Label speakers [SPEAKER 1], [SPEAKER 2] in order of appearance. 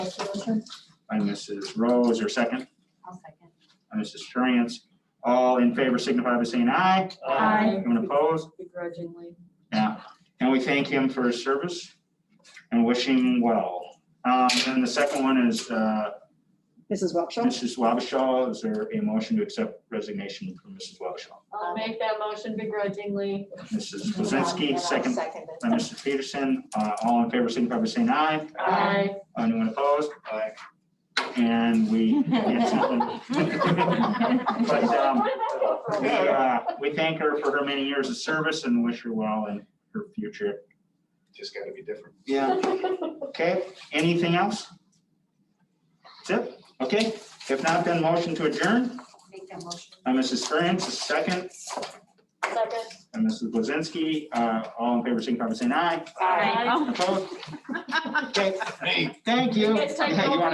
[SPEAKER 1] make the motion?
[SPEAKER 2] by Mrs. Rose, or second
[SPEAKER 1] I'll second.
[SPEAKER 2] by Mrs. Ferriant. All in favor signify by saying aye.
[SPEAKER 1] Aye.
[SPEAKER 2] Anyone opposed?
[SPEAKER 1] Begrudgingly.
[SPEAKER 2] Yeah, and we thank him for his service and wish him well. Um, And the second one is uh,
[SPEAKER 3] Mrs. Wiltshire?
[SPEAKER 2] Mrs. Wabashaw. Is there a motion to accept resignation from Mrs. Wabashaw?
[SPEAKER 1] I'll make that motion begrudgingly.
[SPEAKER 2] Mrs. Blazinski,
[SPEAKER 1] And I'll
[SPEAKER 2] second
[SPEAKER 1] Second.
[SPEAKER 2] by
[SPEAKER 1] it.
[SPEAKER 2] Mrs. Peterson. Uh, All in favor, signify by saying aye.
[SPEAKER 1] Aye.
[SPEAKER 2] Anyone opposed? Aye. And we. But, um, we, uh, We thank her for her many years of service and wish her well in her future.
[SPEAKER 4] Just gotta be different.
[SPEAKER 2] Yeah. Okay, anything else? That's it? Okay, if not, then motion to adjourn
[SPEAKER 1] Make that motion.
[SPEAKER 2] by Mrs. France, a second,
[SPEAKER 1] Second.
[SPEAKER 2] and Mrs. Blazinski, uh, all in favor, signify by saying aye.
[SPEAKER 1] Aye.
[SPEAKER 2] Opposed? Okay,
[SPEAKER 4] Hey,
[SPEAKER 2] thank you.
[SPEAKER 1] It's time
[SPEAKER 2] Hey, you
[SPEAKER 1] to-
[SPEAKER 2] wanna-